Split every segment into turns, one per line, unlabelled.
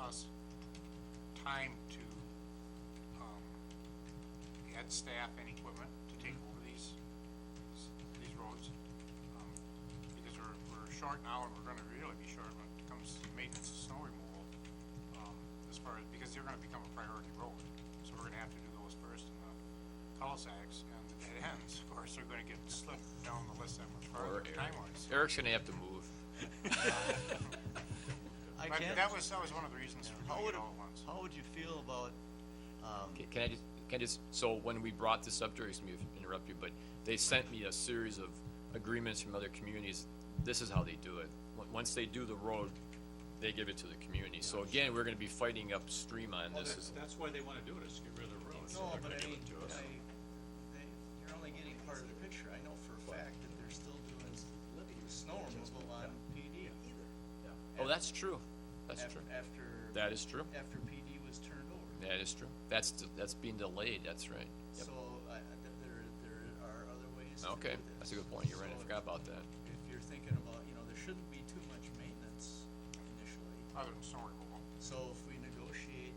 us time to, um, add staff and equipment to take
Mm-hmm.
over these, these roads. um, Because we're, we're short now, and we're gonna really be short when it comes to maintenance and snow removal, um, as far as, because they're gonna become a priority road. So we're gonna have to do those first, and the cul-de-sacs and the dead ends, of course, are gonna get slipped down the list that much farther
Or air.
time-wise.
Eric's gonna have to move.
I
But
can't,
that was, that was one of the reasons for
how
doing
would,
it all at once.
how would you feel about, um,
Ca- Can I just, can I just, so when we brought this up, Jerry, excuse me if I interrupt you, but they sent me a series of agreements from other communities. This is how they do it. On- Once they do the road, they give it to the community. So again, we're gonna be fighting upstream on
Well,
this.
that's, that's why they wanna do it, is to get rid of the roads.
no,
They're
but
gonna
I,
give it to us.
I, they, you're only getting part of the picture, I know for a fact that they're still doing snow removal on PD.
Oh, that's true. That's
Af-
true.
After,
That is true.
after PD was turned over.
That is true. That's, d- that's being delayed, that's right. Yep.
So, I, I- th- there, there are other ways to do
Okay,
this.
that's a good point. You're right, I
So
forgot about that.
If you're thinking about, you know, there shouldn't be too much maintenance initially.
Other than snow removal.
So if we negotiate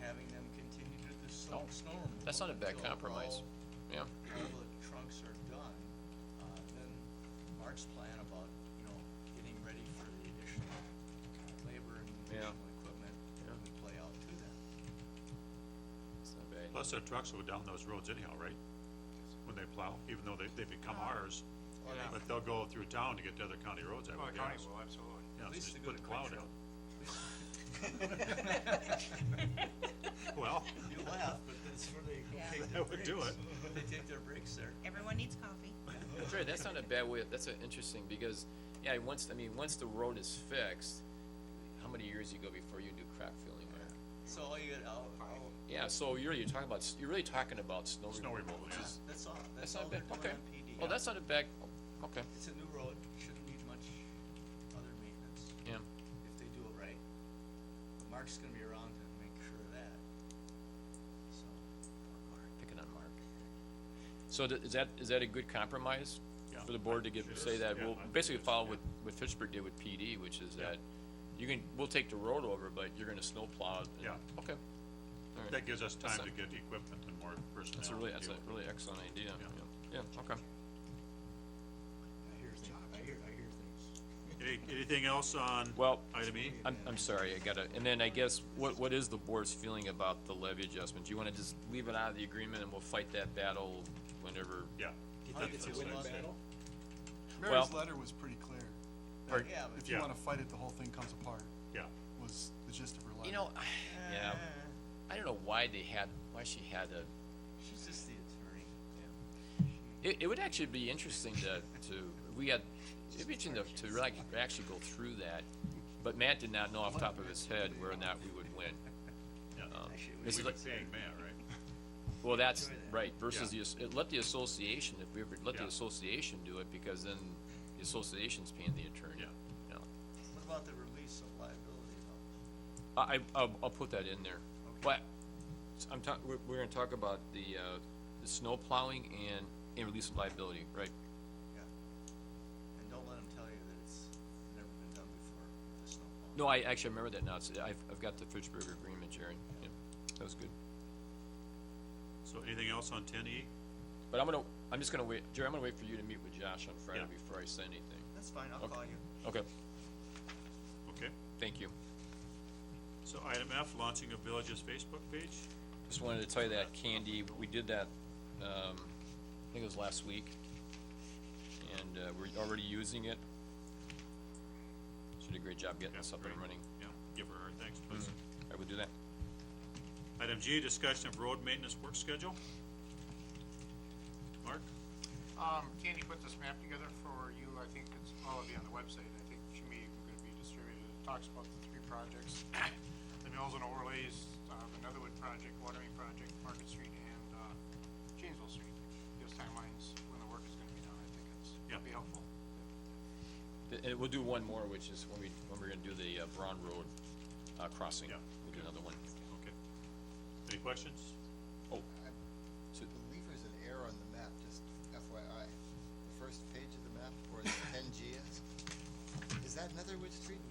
having them continue to do the snow, snow removal.
That's not a bad
until
compromise. Yeah,
All all the trunks are done, uh, then Mark's plan about, you know, getting ready for the additional labor and
Yeah.
additional equipment
Yeah.
would play out to that.
it's not bad.
Plus, their trucks go down those roads anyhow, right? When they plow, even though they, they become
Uh-huh.
ours,
Or they-
but they'll go through town to get to other county roads, I
Oh,
Well, the
would
county
guess.
will, absolutely.
Yeah, so
least
just
they go
put
to
the plow
Quick
down. Well,
You laugh, but that's where they
Yeah.
take their
that would
breaks.
do it.
They take their breaks there.
Everyone needs coffee.
That's right, that's not a bad way, that's uh, interesting, because, yeah, once, I mean, once the road is fixed, how many years you go before you do crack filling there?
So all you get, I'll, I'll,
Yeah, so you're, you're talking about, s- you're really talking about snow
Snow
removal,
removal,
which
yeah.
is,
that's all,
that's
that's
not
all they're
bad,
doing
okay.
on PD.
Well, that's not a bad, okay,
It's a new road, shouldn't need much other maintenance
yeah,
if they do it right. But Mark's gonna be around to make sure of that. So,
picking on Mark. So th- is that, is that a good compromise?
Yeah.
For the board to give,
It
say
is,
that,
yeah,
we'll
I think
basically
it is,
follow
yeah.
what, what Fitchburg did with PD, which is
Yeah.
that you can, we'll take the road over, but you're gonna snowplow it. and-
Yeah.
Okay,
That gives us time
a-
to get equipment and more personnel.
that's a really,
to
that's a
deal with.
really excellent idea, yeah, yeah, okay.
I hear things, I hear, I hear things.
Any- Anything else on
Well,
item E?
I'm, I'm sorry, I gotta, and then I guess, what, what is the board's feeling about the levy adjustment? Do you wanna just leave it out of the agreement and we'll fight that battle whenever?
Yeah.
How do you
That's-
feel
that's
about
what I
that?
said.
Well-
Mary's letter was pretty clear.
Or-
Yeah, but.
If you
Yeah.
wanna fight it, the whole thing comes apart,
Yeah,
was the gist of her letter.
You know, I- yeah, I don't know why they had, why she had a,
She's just the attorney.
it, it would actually be interesting to, to, we had, it'd be interesting to, to really actually go through that. But Matt did not know off the top of his head where or not we would win.
Actually,
yeah.
it
Uh, Oh, This
was-
is
We've
like,
been paying man, right?
well, that's,
Enjoy that.
right, versus the,
Yeah.
as- let the association, if we ever, let the
Yeah.
association do it, because then the association's paying the attorney.
Yeah.
You know?
What about the release of liability though?
I, I- I'll, I'll put that in there. But I'm talk, we're, we're gonna talk about the, uh, the snow plowing and, and release of liability, right?
Yeah. And don't let them tell you that it's never been done before, the snowball.
No, I actually remember that now. It's, I've, I've got the Fitchburg agreement, Jerry. Yeah, that was good.
So anything else on ten E?
But I'm gonna, I'm just gonna wait, Jerry, I'm gonna wait for you to meet with Josh on Friday
Yeah.
before I say anything.
That's fine, I'll
Okay.
call you.
Okay,
Okay.
thank you.
So item F, launching a village's Facebook page.
Just wanted to tell you that Candy, we did that, um, I think it was last week. And, uh, we're already using it. She did a great job getting us up and
great.
running.
Yeah, give her our thanks, please.
I would do that.
Item G, discussion of road maintenance work schedule. Mark?
Um, Candy put this map together for you, I think it's all of you on the website, I think she may even gonna be distributed, it talks about the three projects, the mills and overlays, uh, the Netherwood project, watering project, Market Street, and, uh, Janesville Street, gives timelines when the work is gonna be done, I think it's,
Yeah.
it'll be helpful.
And- And eh, we'll do one more, which is when we, when we're gonna do the uh, Braun Road, uh, crossing.
Yeah.
We'll do another one.
Okay. Any questions?
Oh,
I believe there's an error on the map, just FYI. The first page of the map, where the ten G is, is that Netherwood Street?